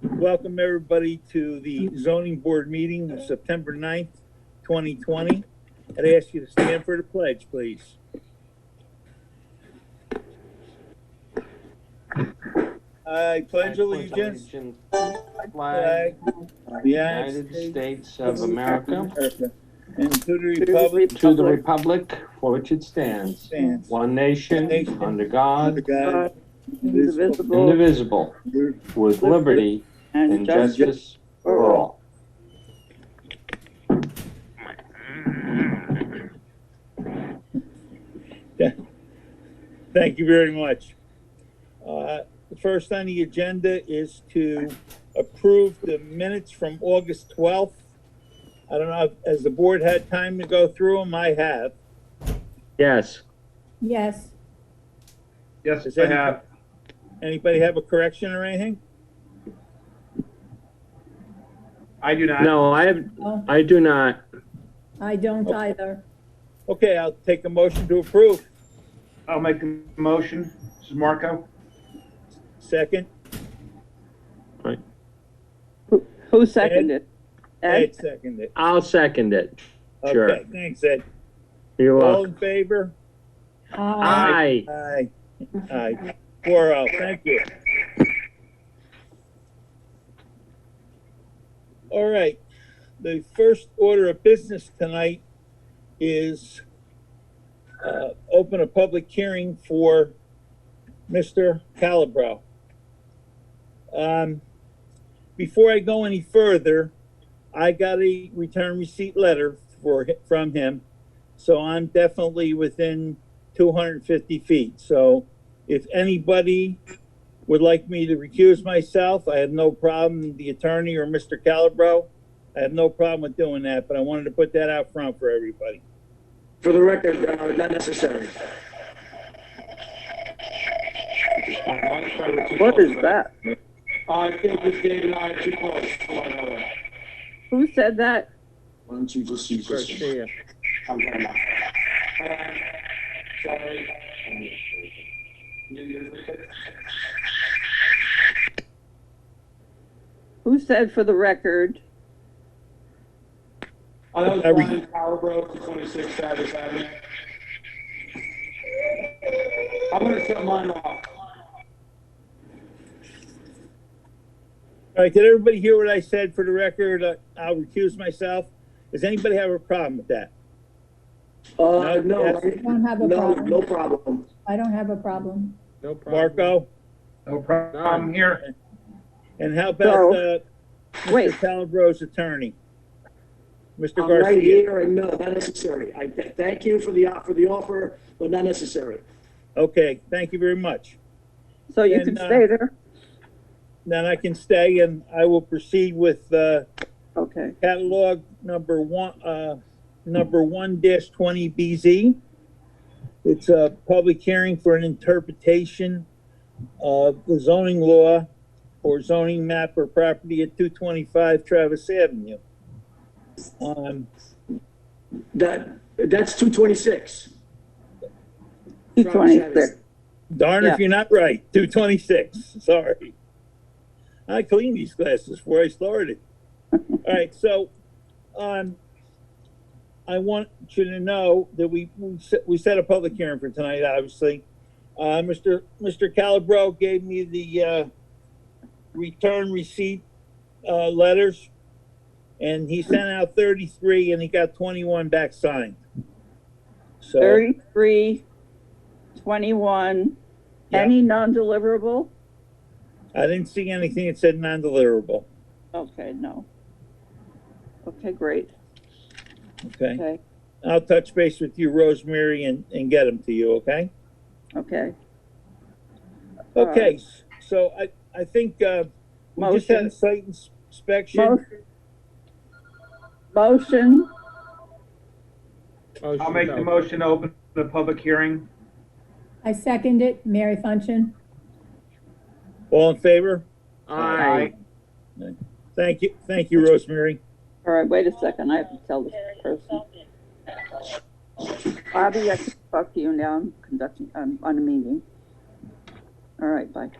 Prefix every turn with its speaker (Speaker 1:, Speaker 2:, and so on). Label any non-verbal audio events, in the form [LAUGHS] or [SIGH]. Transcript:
Speaker 1: Welcome, everybody, to the zoning board meeting of September 9th, 2020. I'd ask you to stand for the pledge, please. I pledge allegiance to
Speaker 2: to the
Speaker 1: the
Speaker 2: flag
Speaker 1: flag
Speaker 2: of
Speaker 1: the
Speaker 2: the
Speaker 1: United
Speaker 2: United States of America,
Speaker 1: of America and to the republic
Speaker 2: to the republic for which it stands,
Speaker 1: Stands.
Speaker 2: one
Speaker 1: Nation.
Speaker 2: nation, under
Speaker 1: under
Speaker 2: God,
Speaker 3: Uh,
Speaker 1: God, indivisible,
Speaker 3: indivisible,
Speaker 2: indivisible, with liberty and justice for all.
Speaker 1: Thank you very much. Uh, The first on the agenda is to approve the minutes from August 12th. I don't know, if- has the board had time to go through them? I have.
Speaker 2: Yes,
Speaker 4: Yes,
Speaker 5: Yes,
Speaker 1: Does
Speaker 5: I
Speaker 1: any-
Speaker 5: have.
Speaker 1: Anybody have a correction or anything?
Speaker 5: I do not.
Speaker 2: no, I have,
Speaker 4: no,
Speaker 2: I do not.
Speaker 4: I don't either.
Speaker 1: Okay, I'll take a motion to approve.
Speaker 5: I'll make a motion. This is Marco.
Speaker 1: Second,
Speaker 3: who seconded?
Speaker 1: Ed
Speaker 3: Ed?
Speaker 1: seconded.
Speaker 2: I'll second it. Sure.
Speaker 1: Okay, thanks, Ed.
Speaker 2: You're
Speaker 1: All
Speaker 2: welcome.
Speaker 1: in favor?
Speaker 4: Uh,
Speaker 2: Aye.
Speaker 1: Aye. Aye. Four oh, thank you. All right, the first order of business tonight is uh, open a public hearing for Mr. Calabro. Um, before I go any further, I got a return receipt letter for, from him. So I'm definitely within 250 feet. So if anybody would like me to recuse myself, I have no problem, the attorney or Mr. Calabro, I have no problem with doing that, but I wanted to put that out front for everybody.
Speaker 6: For the record, uh, not necessary.
Speaker 3: What is that?
Speaker 7: I think this Dave and I are too close to one another.
Speaker 3: Who said that?
Speaker 6: Why don't you just use this? one?
Speaker 7: I'm sorry. Sorry. You- you-
Speaker 3: Who said for the record?
Speaker 7: I know it's
Speaker 1: Every-
Speaker 7: Brian Calabro, 26 Travis Avenue. I'm gonna shut mine off.
Speaker 1: All right, did everybody hear what I said for the record? Uh, I'll recuse myself. Does anybody have a problem with that?
Speaker 6: Uh, no,
Speaker 1: Yes.
Speaker 6: I-
Speaker 4: Don't have a
Speaker 6: no,
Speaker 4: problem.
Speaker 6: no problem.
Speaker 4: I don't have a problem.
Speaker 2: No
Speaker 1: Marco?
Speaker 5: No problem here.
Speaker 1: And how about, uh, Mr.
Speaker 3: Wait.
Speaker 1: Calabro's attorney? Mr.
Speaker 6: I'm right
Speaker 1: Garcia?
Speaker 6: here, and no, not necessary. I th- thank you for the, o- for the offer, but not necessary.
Speaker 1: Okay, thank you very much.
Speaker 3: So you
Speaker 1: And,
Speaker 3: can
Speaker 1: uh,
Speaker 3: stay there?
Speaker 1: Then I can stay and I will proceed with, uh,
Speaker 3: Okay.
Speaker 1: catalog number one, uh, number one dash twenty BZ. It's a public hearing for an interpretation of the zoning law or zoning map or property at two twenty-five Travis Avenue. Um,
Speaker 6: That, that's two twenty-six.
Speaker 3: Two twenty-six.
Speaker 1: darn
Speaker 3: Yeah.
Speaker 1: if you're not right, two twenty-six, sorry. I cleaned these glasses before I
Speaker 3: [LAUGHS]
Speaker 1: started. All right, so, um, I want you to know that we, we set, we set a public hearing for tonight, obviously. Uh, Mr. Mr. Calabro gave me the, uh, return receipt, uh, letters. And he sent out thirty-three and he got twenty-one back signed. So.
Speaker 3: Thirty-three, twenty-one.
Speaker 1: Yeah.
Speaker 3: Any non-deliverable?
Speaker 1: I didn't see anything that said non-deliverable,
Speaker 3: Okay, no. Okay, great.
Speaker 1: okay?
Speaker 3: Okay,
Speaker 1: I'll touch base with you, Rosemary, and, and get them to you, okay?
Speaker 3: okay. All right.
Speaker 1: Okay, s- so I, I think, uh, we just had
Speaker 3: Motion.
Speaker 1: a site ins- inspection.
Speaker 3: Mo- Motion,
Speaker 5: I'll make the motion to open the public hearing.
Speaker 4: I second it, Mary Function.
Speaker 1: All in favor?
Speaker 2: Aye.
Speaker 1: Thank you, thank you, Rosemary.
Speaker 3: all right, wait a second, I have to tell this person. Bobby, I can talk to you now, I'm conducting, I'm on a meeting. All right, bye.